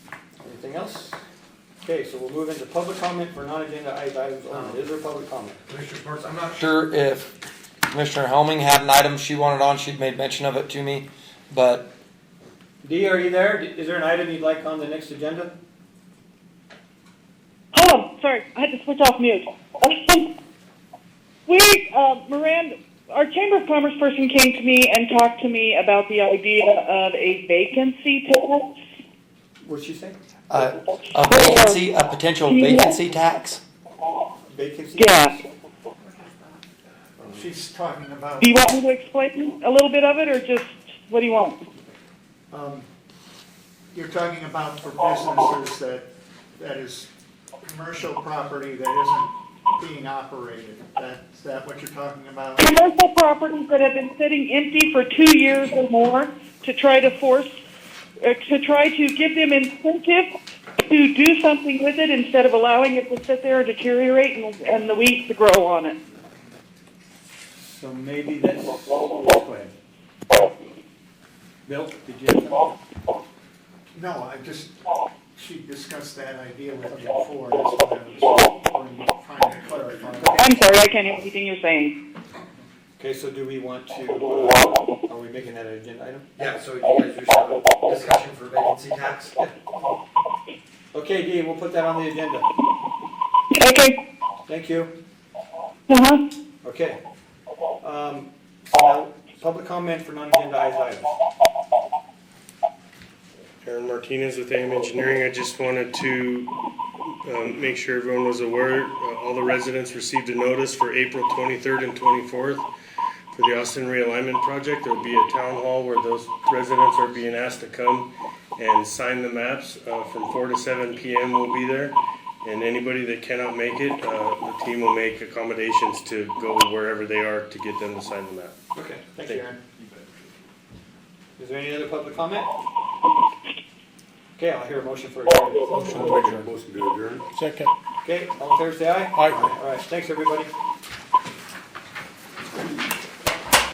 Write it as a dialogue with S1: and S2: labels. S1: Anything else? Okay, so we'll move into public comment for non-agenda items only. Is there public comment?
S2: Commissioner Parks, I'm not sure.
S3: sure if Commissioner Helming had an item she wanted on, she'd made mention of it to me, but
S1: Dee, are you there? Is there an item you'd like on the next agenda?
S4: Oh, sorry, I had to switch off mute. we, uh, Miranda, our Chamber of Commerce person came to me and talked to me about the idea of a vacancy tax.
S1: What'd she say?
S3: uh, a vacancy, a potential vacancy tax?
S1: Vacancy?
S4: Yeah.
S5: She's talking about,
S4: Do you want me to explain a little bit of it, or just what do you want?
S5: um, you're talking about for businesses that, that is commercial property that isn't being operated. That, is that what you're talking about?
S4: Commercial properties that have been sitting empty for two years or more to try to force, uh, to try to give them incentive to do something with it instead of allowing it to sit there and deteriorate and, and the weeds to grow on it.
S1: So maybe that's, go ahead. Bill, did you? have something?
S5: No, I just, she discussed that idea with me before, that's what I was trying to clarify.
S4: I'm sorry, I can't hear anything you're saying.
S1: Okay, so do we want to, uh, are we making that an agenda item?
S2: Yeah, so you guys just have a discussion for vacancy tax?
S1: Okay, Dee, we'll put that on the agenda.
S4: Okay.
S1: Thank you.
S4: Uh-huh.
S1: Okay. Um, now, public comment for non-agenda items.
S6: Aaron Martinez with AM Engineering. I just wanted to um, make sure everyone was aware, uh, all the residents received a notice for April 23rd and 24th for the Austin realignment project. There'll be a town hall where those residents are being asked to come and sign the maps. uh, From 4 to 7 PM we'll be there. And anybody that cannot make it, uh, the team will make accommodations to go wherever they are to get them to sign the map.
S1: Okay, thank you, Aaron. Is there any other public comment? Okay, I'll hear a motion for adjournment.
S7: Motion to adjourn.
S1: Okay, all in favor, say aye.
S7: Aye.
S1: All right, thanks, everybody.